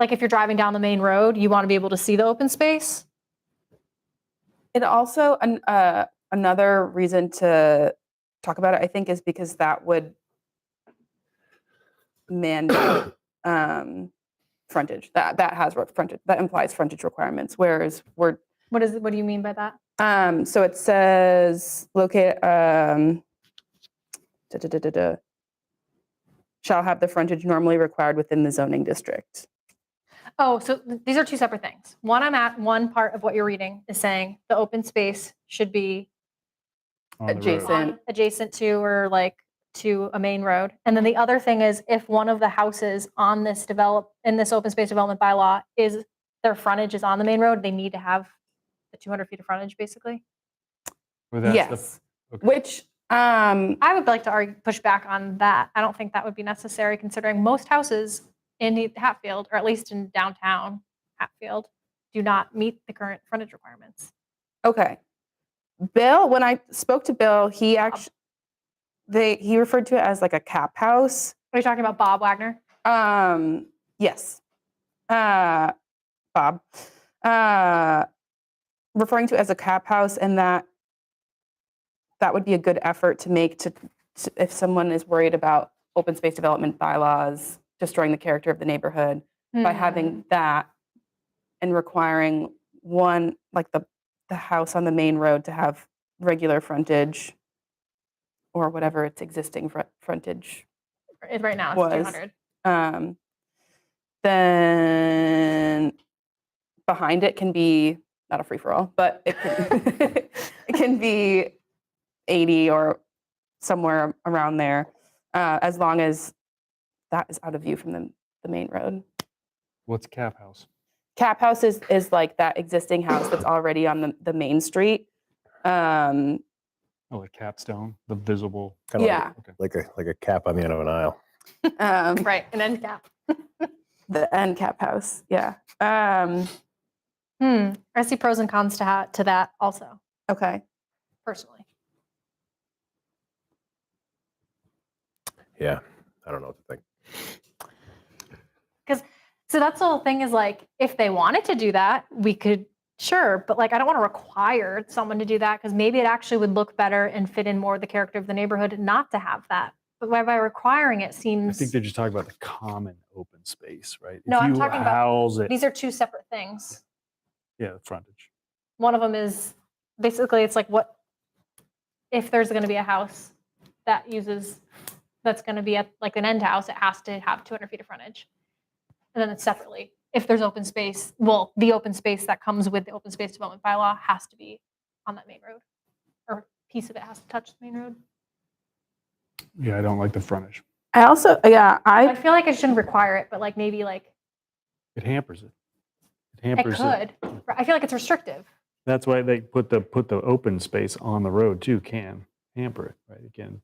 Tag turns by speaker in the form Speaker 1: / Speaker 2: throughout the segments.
Speaker 1: Like if you're driving down the main road, you want to be able to see the open space.
Speaker 2: It also an, uh, another reason to talk about it, I think, is because that would mandate um, frontage. That that has re- frontage. That implies frontage requirements. Whereas we're
Speaker 1: What is, what do you mean by that?
Speaker 2: um, so it says locate um, da, da, da, da, da, shall have the frontage normally required within the zoning district.
Speaker 1: Oh, so th- these are two separate things. One I'm at, one part of what you're reading is saying the open space should be
Speaker 3: on the road.
Speaker 2: Adjacent.
Speaker 1: on- adjacent to or like to a main road. And then the other thing is if one of the houses on this develop, in this open space development bylaw is their frontage is on the main road, they need to have the 200 feet of frontage basically.
Speaker 3: Well, that's the-
Speaker 2: yes,
Speaker 3: okay.
Speaker 2: which um,
Speaker 1: I would like to argue, push back on that. I don't think that would be necessary considering most houses in Hatfield, or at least in downtown Hatfield, do not meet the current frontage requirements.
Speaker 2: Okay. Bill, when I spoke to Bill, he actually they he referred to it as like a cap house.
Speaker 1: Are you talking about Bob Wagner?
Speaker 2: Um, yes. Uh Bob. Uh referring to it as a cap house and that that would be a good effort to make to, to if someone is worried about open space development bylaws destroying the character of the neighborhood by
Speaker 1: Mm-hmm.
Speaker 2: having that and requiring one like the the house on the main road to have regular frontage or whatever its existing fr- frontage
Speaker 1: It- Hmm. right now it's
Speaker 2: was.
Speaker 1: 200.
Speaker 2: um, then behind it can be not a free for all, but it can, it can be 80 or somewhere around there, uh, as long as that is out of view from the, the main road.
Speaker 3: What's Cap House?
Speaker 2: Cap house is, is like that existing house that's already on the, the main street. Um,
Speaker 3: Oh, like capstone, the visible.
Speaker 4: Kinda like-
Speaker 2: Yeah.
Speaker 3: Okay.
Speaker 4: Like a, like a cap on the end of an aisle.
Speaker 2: um,
Speaker 1: Right, an end cap.
Speaker 2: The end cap house. Yeah. Um,
Speaker 1: Hmm. I see pros and cons to, ha- to that also,
Speaker 2: okay.
Speaker 1: personally.
Speaker 4: Yeah. I don't know what to think.
Speaker 1: So that's the whole thing is like, if they wanted to do that, we could, sure, but like, I don't want to require someone to do that because maybe it actually would look better and fit in more the character of the neighborhood not to have that. But by, by requiring it
Speaker 3: I
Speaker 1: seems,
Speaker 3: think they're just talking about the common open space, right?
Speaker 1: No,
Speaker 3: if
Speaker 1: I'm
Speaker 3: you
Speaker 1: talking about
Speaker 3: house it,
Speaker 1: these are two separate things.
Speaker 3: yeah, the frontage.
Speaker 1: One of them is basically it's like what, if there's going to be a house that uses, that's going to be at like an end house, it has to have 200 feet of frontage. And then it's separately. If there's open space, well, the open space that comes with the open space development bylaw has to be on that main road. Or piece of it has to touch the main road.
Speaker 3: Yeah, I don't like the frontage.
Speaker 2: I also, yeah,
Speaker 1: I feel like I shouldn't require it, but like maybe like
Speaker 3: It hampers it. It
Speaker 1: I
Speaker 3: hampers it.
Speaker 1: could. Right, I feel like it's restrictive.
Speaker 3: That's why they put the put the open space on the road too. Can hamper it, right? Again,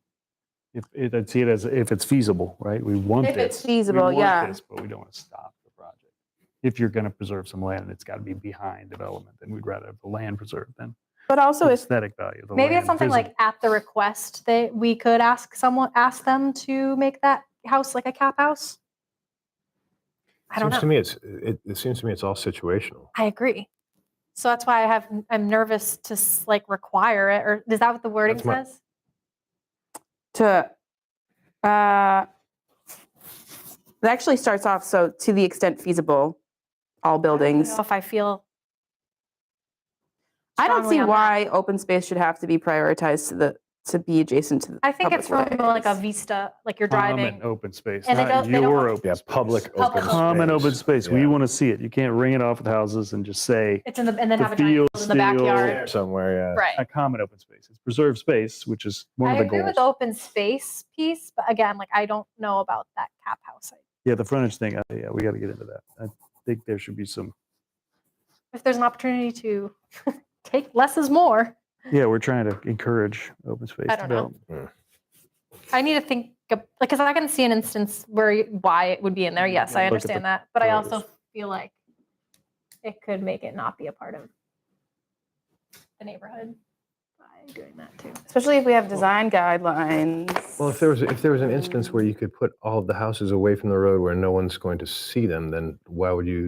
Speaker 3: if it, I'd see it as if it's feasible, right? We want
Speaker 2: If it's
Speaker 3: this. we
Speaker 2: feasible,
Speaker 3: want
Speaker 2: yeah.
Speaker 3: this, but we don't want to stop the project. If you're going to preserve some land, it's got to be behind development. Then we'd rather have the land preserved than
Speaker 2: But also,
Speaker 3: the
Speaker 2: if
Speaker 3: aesthetic value. Of the
Speaker 1: Maybe it's
Speaker 3: land
Speaker 1: something
Speaker 3: visible.
Speaker 1: like at the request that we could ask someone, ask them to make that house like a cap house. I don't
Speaker 4: seems
Speaker 1: know.
Speaker 4: to me it's it, it seems to me it's all situational.
Speaker 1: I agree. So that's why I have I'm nervous to s- like require it or is that what the wording
Speaker 4: That's my-
Speaker 1: says?
Speaker 2: to uh it actually starts off so to the extent feasible all buildings
Speaker 1: So if I feel
Speaker 2: i don't
Speaker 1: strongly
Speaker 2: see
Speaker 1: on that.
Speaker 2: why open space should have to be prioritized to the to be adjacent to the
Speaker 1: I think it's from
Speaker 2: public
Speaker 1: like a
Speaker 2: ways.
Speaker 1: vista, like you're
Speaker 3: common
Speaker 1: driving.
Speaker 3: open space,
Speaker 1: And they
Speaker 3: not
Speaker 1: don't- they don't
Speaker 3: your
Speaker 1: want-
Speaker 3: open.
Speaker 4: Yeah,
Speaker 3: space.
Speaker 4: public
Speaker 1: Public
Speaker 4: open
Speaker 1: open
Speaker 4: space.
Speaker 3: Common open space. We
Speaker 4: Yeah.
Speaker 3: want to see it. You can't ring it off with houses and just say
Speaker 1: It's in the and then
Speaker 3: the
Speaker 1: have a giant
Speaker 3: field
Speaker 1: field in the
Speaker 3: still-
Speaker 1: backyard.
Speaker 4: There somewhere. Yeah.
Speaker 1: Right.
Speaker 3: a common open space. It's preserved space, which is one
Speaker 1: I
Speaker 3: of the
Speaker 1: agree
Speaker 3: goals.
Speaker 1: with the open space piece, but again, like I don't know about that cap house.
Speaker 3: Yeah, the frontage thing. uh, Yeah, we got to get into that. I think there should be some.
Speaker 1: If there's an opportunity to take less is more,
Speaker 3: Yeah, we're trying to encourage open space
Speaker 1: I don't know.
Speaker 3: development.
Speaker 1: I need to think because I can see an instance where y- why it would be in there. Yes,
Speaker 3: Mm, Yeah,
Speaker 1: I
Speaker 3: look at the
Speaker 1: understand that, but I
Speaker 3: pros.
Speaker 1: also feel like it could make it not be a part of the neighborhood. By doing that too.
Speaker 2: especially if we have design guidelines.
Speaker 4: Well, if there was if there was an instance where you could put all of the houses away from the road where no one's going to see them, then why would you